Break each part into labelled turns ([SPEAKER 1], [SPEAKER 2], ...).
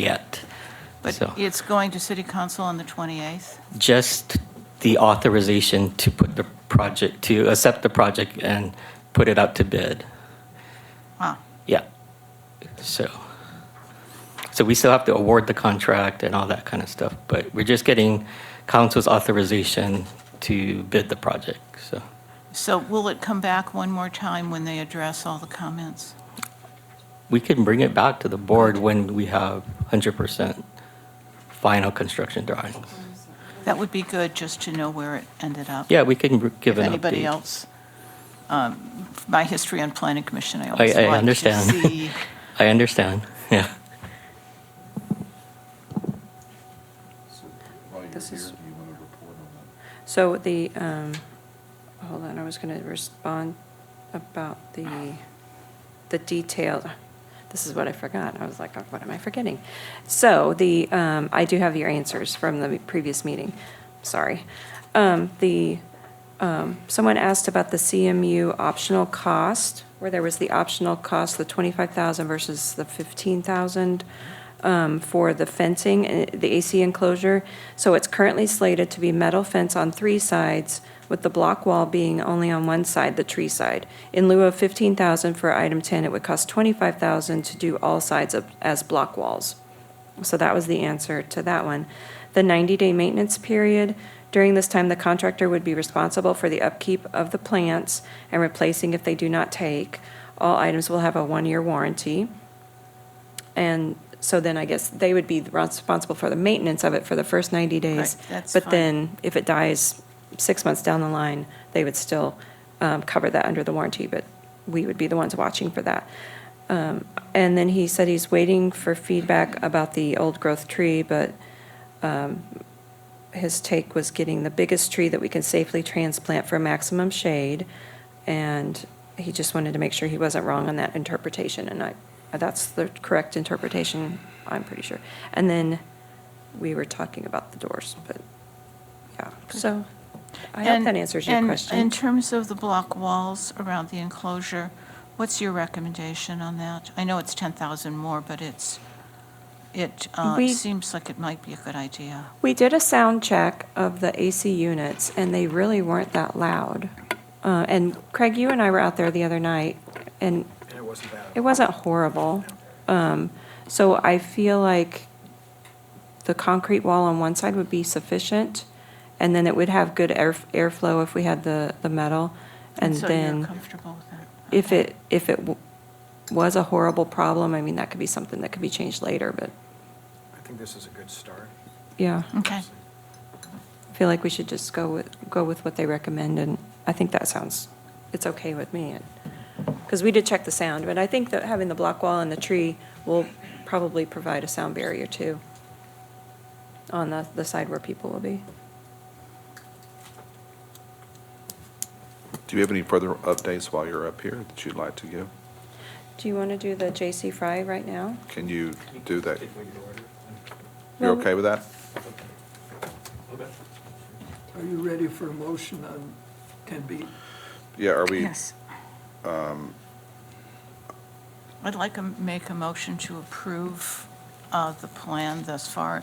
[SPEAKER 1] yet.
[SPEAKER 2] But
[SPEAKER 1] So-
[SPEAKER 2] it's going to city council on the 28th?
[SPEAKER 1] Just the authorization to put the project, to accept the project and put it out to bid.
[SPEAKER 2] Wow.
[SPEAKER 1] Yeah. So, so we still have to award the contract and all that kind of stuff, but we're just getting council's authorization to bid the project, so.
[SPEAKER 2] So will it come back one more time when they address all the comments?
[SPEAKER 1] We can bring it back to the board when we have 100% final construction drawings.
[SPEAKER 2] That would be good, just to know where it ended up.
[SPEAKER 1] Yeah, we can br- give
[SPEAKER 2] If
[SPEAKER 1] an update.
[SPEAKER 2] anybody else, um, my history on planning commission, I
[SPEAKER 1] I,
[SPEAKER 2] always
[SPEAKER 1] I
[SPEAKER 2] like to
[SPEAKER 1] understand.
[SPEAKER 2] see.
[SPEAKER 1] I understand, yeah.
[SPEAKER 3] While you're here,
[SPEAKER 4] This
[SPEAKER 3] do
[SPEAKER 4] is-
[SPEAKER 3] you want to report on that?
[SPEAKER 4] So the, um, hold on, I was going to respond about the, the detailed, this is what I forgot. I was like, "Oh, what am I forgetting? So the, um, I do have your answers from the previous meeting, sorry. Um, The, um, someone asked about the CMU optional cost, where there was the optional cost, the 25,000 versus the 15,000 um, for the fencing, uh, the AC enclosure. So it's currently slated to be metal fence on three sides, with the block wall being only on one side, the tree side. In lieu of 15,000 for item 10, it would cost 25,000 to do all sides of- as block walls. So that was the answer to that one. The 90-day maintenance period, during this time, the contractor would be responsible for the upkeep of the plants and replacing if they do not take. All items will have a one-year warranty. And so then I guess they would be responsible for the maintenance of it for the first 90 days.
[SPEAKER 2] Right, that's
[SPEAKER 4] But
[SPEAKER 2] fine.
[SPEAKER 4] then if it dies six months down the line, they would still um, cover that under the warranty, but we would be the ones watching for that. Um, And then he said he's waiting for feedback about the old growth tree, but his take was getting the biggest tree that we can safely transplant for maximum shade, and he just wanted to make sure he wasn't wrong on that interpretation, and I, that's the correct interpretation, I'm pretty sure. And then we were talking about the doors, but, yeah, so I hope
[SPEAKER 2] And-
[SPEAKER 4] that answers your
[SPEAKER 2] and In
[SPEAKER 4] question.
[SPEAKER 2] terms of the block walls around the enclosure, what's your recommendation on that? I know it's 10,000 more, but it's, it uh,
[SPEAKER 4] We-
[SPEAKER 2] seems like it might be a good idea.
[SPEAKER 4] We did a sound check of the AC units, and they really weren't that loud. Uh, and Craig, you and I were out there the other night, and
[SPEAKER 5] And it wasn't bad.
[SPEAKER 4] It wasn't horrible. Um, So I feel like the concrete wall on one side would be sufficient, and then it would have good air airflow if we had the, the metal. And
[SPEAKER 2] So you're
[SPEAKER 4] then
[SPEAKER 2] comfortable with that?
[SPEAKER 4] if it, if it w- was a horrible problem, I mean, that could be something that could be changed later, but,
[SPEAKER 5] I think this is a good start.
[SPEAKER 4] yeah.
[SPEAKER 2] Okay.
[SPEAKER 4] I feel like we should just go with, go with what they recommend, and I think that sounds, it's okay with me. Because we did check the sound, but I think that having the block wall and the tree will probably provide a sound barrier too on the, the side where people will be.
[SPEAKER 3] Do you have any further updates while you're up here that you'd like to give?
[SPEAKER 4] Do you want to do the J.C. Fry right now?
[SPEAKER 3] Can you do that? You're
[SPEAKER 4] Well-
[SPEAKER 3] okay with that?
[SPEAKER 6] Are you ready for a motion on 10B?
[SPEAKER 3] Yeah, are we,
[SPEAKER 2] I'd like to make a motion to approve uh, the plan thus far,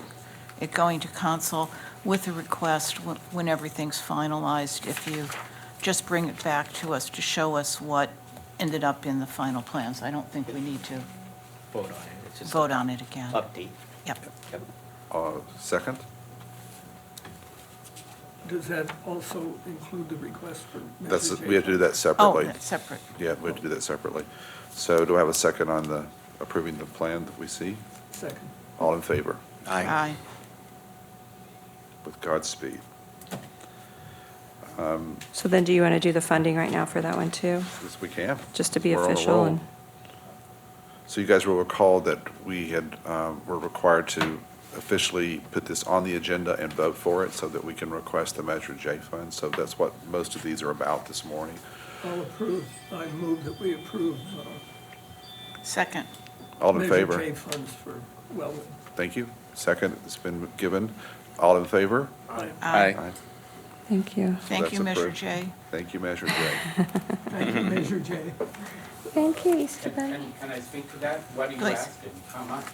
[SPEAKER 2] it going to council with a request wh- when everything's finalized, if you just bring it back to us to show us what ended up in the final plans. I don't think we need to
[SPEAKER 1] Vote on it, it's just
[SPEAKER 2] vote on it again.
[SPEAKER 1] update.
[SPEAKER 2] Yep.
[SPEAKER 3] uh, second?
[SPEAKER 6] Does that also include the request for
[SPEAKER 3] That's,
[SPEAKER 6] Mrs.
[SPEAKER 3] we have to do that
[SPEAKER 2] Oh,
[SPEAKER 3] separately.
[SPEAKER 2] that's separate.
[SPEAKER 3] Yeah, we have to do that separately. So do I have a second on the approving the plan that we see?
[SPEAKER 6] Second.
[SPEAKER 3] All in favor?
[SPEAKER 2] Aye.
[SPEAKER 3] With Godspeed.
[SPEAKER 4] So then do you want to do the funding right now for that one too?
[SPEAKER 3] Yes, we can.
[SPEAKER 4] Just to be
[SPEAKER 3] We're on a
[SPEAKER 4] official
[SPEAKER 3] roll.
[SPEAKER 4] and,
[SPEAKER 3] So you guys will recall that we had, um, were required to officially put this on the agenda and vote for it so that we can request the Measure J fund. So that's what most of these are about this morning.
[SPEAKER 6] I'll approve, I move that we approve uh,
[SPEAKER 2] Second.
[SPEAKER 3] All in
[SPEAKER 6] Measure
[SPEAKER 3] favor?
[SPEAKER 6] J funds for Wellwood.
[SPEAKER 3] Thank you. Second has been given. All in favor?
[SPEAKER 2] Aye.
[SPEAKER 4] thank you.
[SPEAKER 2] Thank you,
[SPEAKER 3] That's
[SPEAKER 2] Measure
[SPEAKER 3] approved.
[SPEAKER 2] J.
[SPEAKER 3] Thank you, Measure J.
[SPEAKER 6] Thank you, Measure J.
[SPEAKER 4] Thank you,
[SPEAKER 7] Can, can I speak to that? What do you
[SPEAKER 2] Please.
[SPEAKER 7] ask and how much?